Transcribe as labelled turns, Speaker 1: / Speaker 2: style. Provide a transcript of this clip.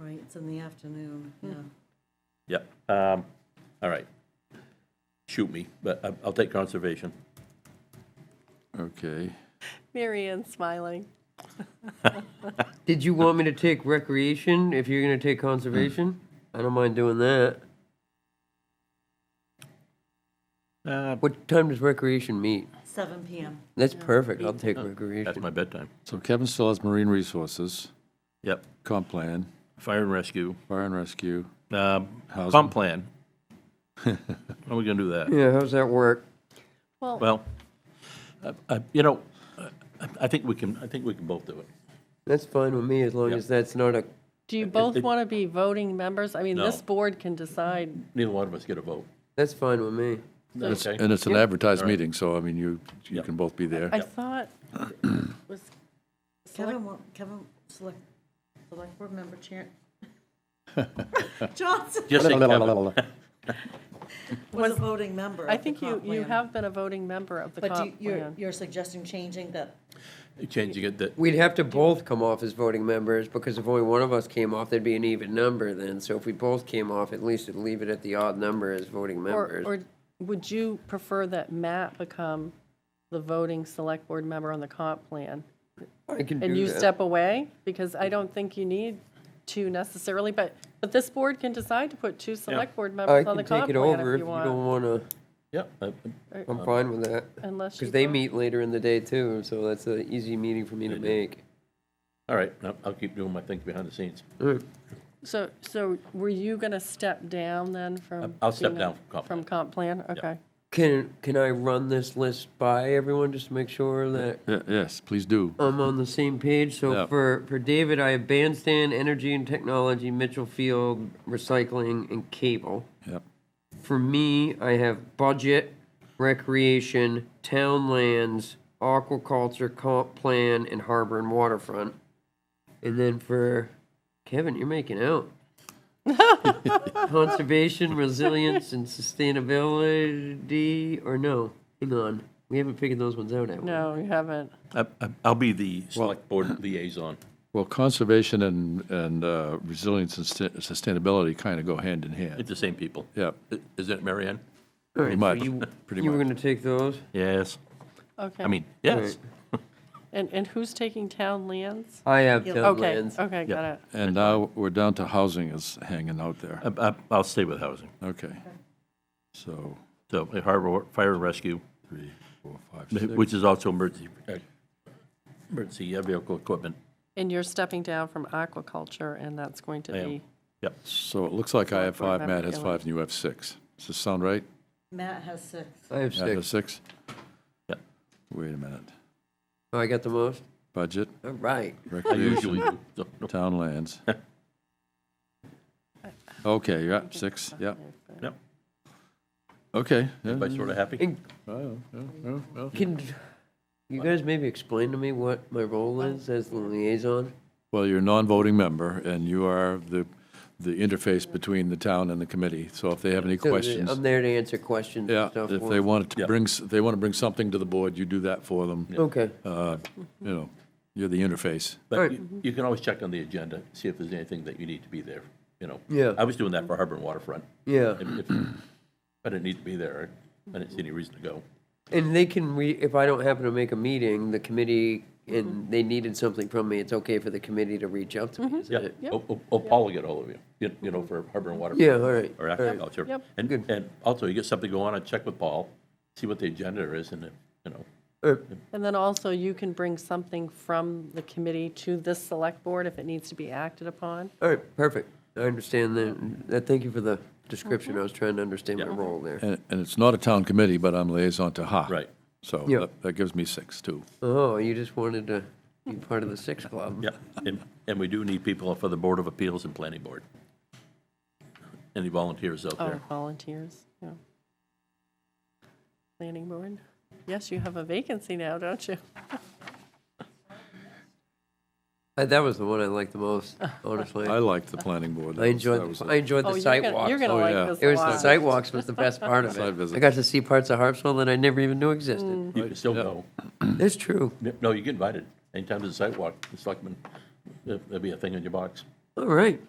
Speaker 1: Right, it's in the afternoon,
Speaker 2: Hmm.
Speaker 1: yeah.
Speaker 3: Yep, um, all right. Shoot me, but I- I'll take conservation.
Speaker 4: Okay.
Speaker 2: Mary Ann's smiling.
Speaker 5: Did you want me to take recreation if you're gonna take conservation? I don't mind doing that.
Speaker 3: Uh,
Speaker 5: What time does recreation meet?
Speaker 1: Seven PM.
Speaker 5: That's perfect, I'll take
Speaker 3: That's
Speaker 5: recreation.
Speaker 3: my bedtime.
Speaker 4: So Kevin still has marine resources,
Speaker 3: Yep,
Speaker 4: comp plan,
Speaker 3: fire and rescue,
Speaker 4: fire and rescue.
Speaker 3: um,
Speaker 4: Housing.
Speaker 3: comp plan. How are we gonna do that?
Speaker 5: Yeah, how's that work?
Speaker 2: Well,
Speaker 3: Well, I- I- you know, I- I think we can, I think we can both do it.
Speaker 5: That's fine with me, as long
Speaker 3: Yep.
Speaker 5: as that's not a,
Speaker 2: do you
Speaker 3: it-
Speaker 2: both
Speaker 3: it-
Speaker 2: want to be voting members? I mean, this
Speaker 3: No.
Speaker 2: board can decide.
Speaker 3: Neither one of us get a vote.
Speaker 5: that's fine with me.
Speaker 4: It's-
Speaker 3: Okay.
Speaker 4: And it's an advertised
Speaker 3: All right.
Speaker 4: meeting, so I mean, you, you
Speaker 3: Yep.
Speaker 4: can both be there.
Speaker 2: I thought it was,
Speaker 1: Kevin, wa- Kevin, select, select board member chair. Johnson
Speaker 3: Just say Kevin.
Speaker 1: was a voting member of
Speaker 2: I
Speaker 1: the
Speaker 2: think you,
Speaker 1: comp
Speaker 2: you
Speaker 1: plan.
Speaker 2: have been a voting member of the
Speaker 1: But you-
Speaker 2: comp
Speaker 1: you're,
Speaker 2: plan.
Speaker 1: you're suggesting changing that,
Speaker 3: Changing it, that,
Speaker 5: We'd have to both come off as voting members, because if only one of us came off, that'd be an even number then. So if we both came off, at least it'd leave it at the odd number as voting
Speaker 2: Or,
Speaker 5: members.
Speaker 2: or would you prefer that Matt become the voting select board member on the comp plan?
Speaker 5: I can
Speaker 2: And
Speaker 5: do
Speaker 2: you
Speaker 5: that.
Speaker 2: step away? Because I don't think you need two necessarily, but, but this board can decide to put two select board
Speaker 5: I
Speaker 2: members on the
Speaker 5: can
Speaker 2: comp
Speaker 5: take it
Speaker 2: plan
Speaker 5: over
Speaker 2: if
Speaker 5: if
Speaker 2: you
Speaker 5: you don't
Speaker 2: want.
Speaker 5: wanna,
Speaker 3: yeah, I-
Speaker 5: I'm fine with that.
Speaker 2: Um, Unless you.
Speaker 5: Because they
Speaker 2: vote.
Speaker 5: meet later in the day too, so that's an easy meeting for me to make.
Speaker 3: all right, I'll- I'll keep doing my thing behind the scenes.
Speaker 2: So, so were you going to step down then from?
Speaker 3: I'll step
Speaker 2: being a-
Speaker 3: down from comp plan.
Speaker 2: From comp plan, okay.
Speaker 5: Can, can I run this list by everyone just to make sure that
Speaker 4: Yeah, Yes, please do.
Speaker 5: I'm on the same page?
Speaker 4: Yeah.
Speaker 5: So for, for David, I have bandstand, energy and technology, Mitchell Field, recycling, and cable.
Speaker 4: Yep.
Speaker 5: For me, I have budget, recreation, town lands, aquaculture, comp plan, and harbor and waterfront. And then for Kevin, you're making out. Conservation, resilience, and sustainability, or no? Hang on, we haven't figured those ones out, have we?
Speaker 2: No, you haven't.
Speaker 3: I- I- I'll be the select board liaison.
Speaker 4: Well, conservation and, and uh, resilience and sus- sustainability kind of go hand in
Speaker 3: It's
Speaker 4: hand.
Speaker 3: the same people.
Speaker 4: Yep,
Speaker 3: I- Isn't it, Mary Ann?
Speaker 5: All right,
Speaker 4: pretty much,
Speaker 5: so You
Speaker 4: pretty
Speaker 5: you were
Speaker 4: much.
Speaker 5: gonna take those?
Speaker 3: Yes.
Speaker 2: Okay.
Speaker 3: I mean, yes.
Speaker 2: And, and who's taking town lands?
Speaker 5: I have
Speaker 1: Yeah.
Speaker 5: town
Speaker 2: Okay, Uh,
Speaker 5: lands.
Speaker 2: okay, got it.
Speaker 4: And now we're down to housing is hanging out there.
Speaker 3: I- I- I'll stay with housing.
Speaker 4: Okay. So,
Speaker 3: So harbor, fire and rescue,
Speaker 4: three, four, five, six.
Speaker 3: which is also emergency, uh, emergency uh, vehicle equipment.
Speaker 2: And you're stepping down from aquaculture, and that's going to
Speaker 3: I am.
Speaker 2: be,
Speaker 3: Yep.
Speaker 4: So it looks like I have five, Matt has
Speaker 2: Remember,
Speaker 4: five, and you have six. Does this sound right?
Speaker 1: Matt has six.
Speaker 5: I have
Speaker 4: Matt has
Speaker 5: six.
Speaker 4: six?
Speaker 3: Yep.
Speaker 4: Wait a minute.
Speaker 5: Oh, I got the most?
Speaker 4: Budget,
Speaker 5: All right.
Speaker 3: I
Speaker 4: recreation,
Speaker 3: usually do. So, no.
Speaker 4: town lands. Okay, you're at six, yeah.
Speaker 3: Yep.
Speaker 4: Okay. yeah,
Speaker 3: Everybody sort of happy?
Speaker 5: And
Speaker 4: well, well, well, well.
Speaker 5: Can you guys maybe explain to me what my role is as the liaison?
Speaker 4: Well, you're a non-voting member, and you are the, the interface between the town and the committee. So if they have any
Speaker 5: So the-
Speaker 4: questions,
Speaker 5: I'm there to answer questions
Speaker 4: yeah,
Speaker 5: and stuff.
Speaker 4: if
Speaker 5: for
Speaker 4: they
Speaker 5: them.
Speaker 4: want to
Speaker 3: Yeah.
Speaker 4: bring, s- they want to bring something to the board, you do that for them.
Speaker 5: Okay,
Speaker 4: Uh, You know, you're the interface.
Speaker 3: But
Speaker 5: Alright.
Speaker 3: you- you can always check on the agenda, see if there's anything that you need to be there, you know?
Speaker 5: Yeah.
Speaker 3: I was doing that for Harbor and Waterfront.
Speaker 5: yeah.
Speaker 3: If- if I didn't need to be there. I didn't see any reason to go.
Speaker 5: And they can re, if I don't happen to make a meeting, the committee, and they needed something from me, it's okay for the committee to reach out to me,
Speaker 3: Yeah.
Speaker 5: isn't it?
Speaker 3: Oh, oh, oh, Paul will get hold of you, you- you know, for Harbor and Waterfront.
Speaker 5: Yeah, all right,
Speaker 3: or
Speaker 5: all right.
Speaker 3: agriculture.
Speaker 2: Yep.
Speaker 3: And,
Speaker 5: Good.
Speaker 3: and also, you get something going on, I'd check with Paul, see what the agenda is, and, if, you know,
Speaker 5: Uh,
Speaker 2: and then also you can bring something from the committee to this select board if it needs to be acted upon.
Speaker 5: All right, perfect. I understand that, that, thank you for the description, I was trying to understand my role there.
Speaker 4: And, and it's not a town committee, but I'm liaison to HA.
Speaker 3: Right.
Speaker 4: So
Speaker 5: Yeah.
Speaker 4: that- that gives me six, too.
Speaker 5: Oh, you just wanted to be part of the six club?
Speaker 3: yeah. And, and we do need people for the Board of Appeals and Planning Board. Any volunteers out
Speaker 2: Oh,
Speaker 3: there?
Speaker 2: volunteers, yeah. Planning board. Yes, you have a vacancy now, don't you?
Speaker 5: Uh, That was the one I liked the most, honestly.
Speaker 4: I like the planning board.
Speaker 5: I
Speaker 4: That
Speaker 5: enjoyed,
Speaker 4: was
Speaker 5: the-
Speaker 4: a-
Speaker 5: I enjoyed
Speaker 2: Oh,
Speaker 5: the
Speaker 2: you're
Speaker 5: site
Speaker 2: gonna-
Speaker 5: walks.
Speaker 2: You're going to
Speaker 4: Oh, yeah.
Speaker 2: like this
Speaker 5: It was the
Speaker 2: lot.
Speaker 5: site walks was the best part of
Speaker 4: Site
Speaker 5: it. I
Speaker 4: visits.
Speaker 5: got to see parts of Harpswell that I never even knew existed.
Speaker 3: You can still
Speaker 4: yeah.
Speaker 3: go.
Speaker 2: Mm.
Speaker 5: That's true.
Speaker 3: No, you get invited. Anytime there's a sidewalk, the selectmen, there- there'll be a thing in your box.
Speaker 5: All right.